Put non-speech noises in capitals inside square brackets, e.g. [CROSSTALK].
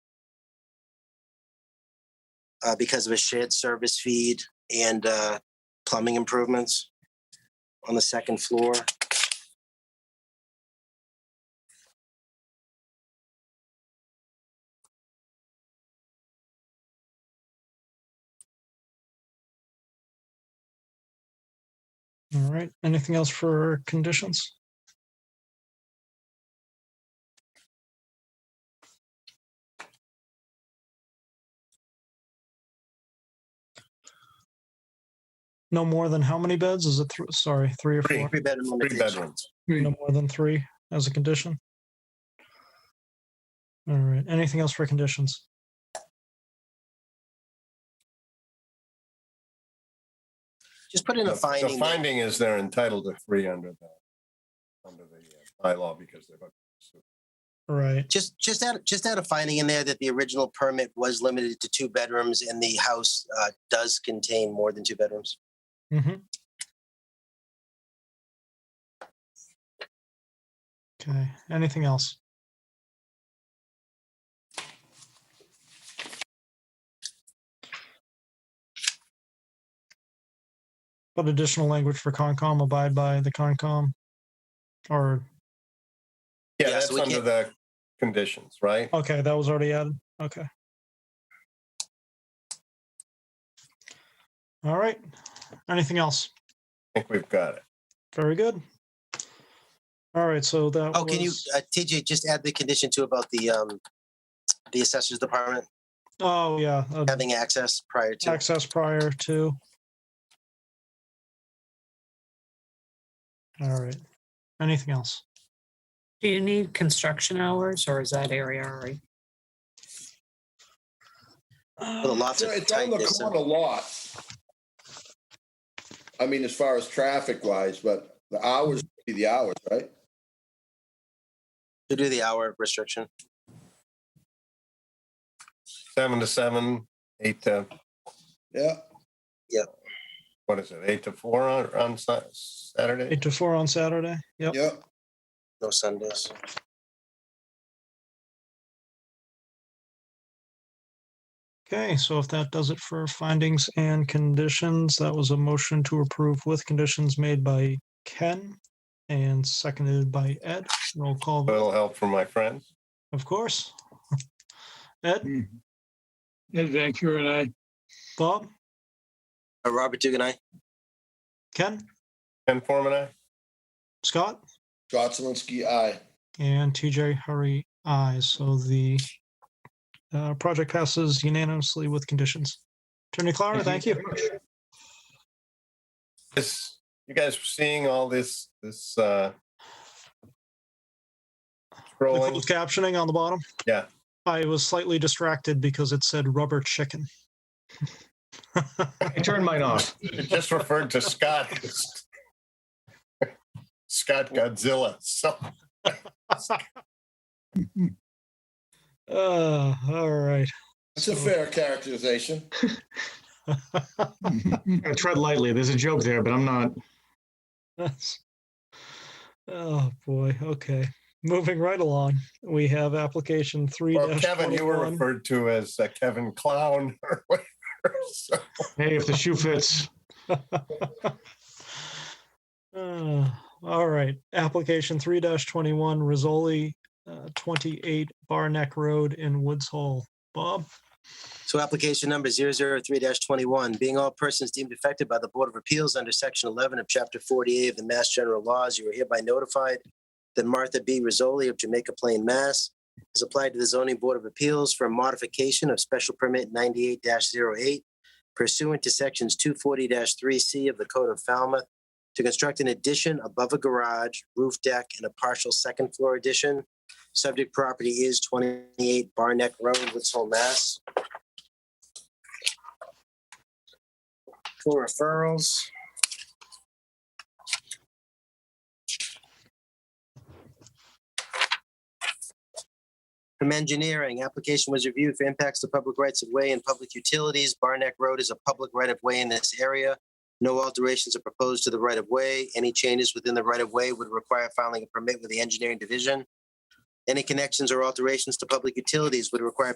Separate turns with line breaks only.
uh, because of a shared service feed and uh, plumbing improvements on the second floor.
All right. Anything else for conditions? No more than how many beds? Is it, thr- sorry, three or
Three
four?
bedroom
Three
limitation.
bedrooms.
No more than three as a condition? All right. Anything else for conditions?
Just put in
The
a
the
finding. that-
finding is they're entitled to three under the, under the uh, bylaw because they're,
Right.
Just, just add, just add a finding in there that the original permit was limited to two bedrooms and the house uh, does contain more than two bedrooms.
Mhm. Okay, anything else? But additional language for Concom, abide by the Concom? Or,
yeah,
Yeah, so
that's
we
under
can't-
the conditions, right?
okay, that was already added, okay. All right, anything else?
I think we've got it.
Very good. All right, so that.
Oh, can you,
was-
uh, TJ, just add the condition too about the, um, the assessor's department
Oh, yeah, uh,
having access prior to.
access prior to. All right, anything else?
Do you need construction hours or is that area already?
the lots of
It's on the
tightness of-
corner lot. I mean, as far as traffic wise, but the hours, would be the hours, right?
To do the hour restriction.
Seven to seven, eight to,
Yeah,
what is it, eight to four on, on Sa- Saturday?
Eight to four on Saturday? Yep,
yeah.
No Sundays.
okay, so if that does it for findings and conditions, that was a motion to approve with conditions made by Ken and seconded by Ed. Roll call,
A
vote,
little help from my friends.
of course. [LAUGHS] Ed,
Ed Van Kuren, I.
Bob,
Uh, Robert Dugan, I.
Ken,
Ken Forman, aye?
Scott?
Scott Zelinski, aye.
And TJ Hurry, aye. So the uh, project passes unanimously with conditions. Attorney Clara, thank you.
This, you guys were seeing all this, this, uh,
The
scrolling,
[LAUGHS] closed captioning on the bottom.
Yeah.
I was slightly distracted because it said rubber chicken.
I turned mine off.
it just referred to Scott. [LAUGHS] Scott Godzilla, so.
Uh, all right. [LAUGHS]
That's a fair characterization.
I tread lightly. There's a joke there, but I'm not.
That's- Oh, boy. Okay. Moving right along, we have application three.
Well, Kevin, you were referred to as uh, Kevin Clown [LAUGHS] or whatever. So,
Hey, if the shoe fits,
Uh, All right, application three twenty-one, Rizzoli, uh, twenty-eight Barneck Road in Woods Hole. Bob,
So application number 003-21, being all persons deemed affected by the Board of Appeals under Section 11 of Chapter 48 of the Mass General Laws, you are hereby notified that Martha B. Rizzoli of Jamaica Plain, Mass. has applied to the Zoning Board of Appeals for a modification of Special Permit 98-08 pursuant to Sections 240-3C of the Code of Falmouth to construct an addition above a garage, roof deck, and a partial second floor addition. Subject property is 28 Barneck Road, Woods Hole, Mass. for referrals. From engineering, application was reviewed for impacts to public rights of way and public utilities. Barnack Road is a public right of way in this area. No alterations are proposed to the right of way. Any changes within the right of way would require filing a permit with the engineering division. Any connections or alterations to public utilities would require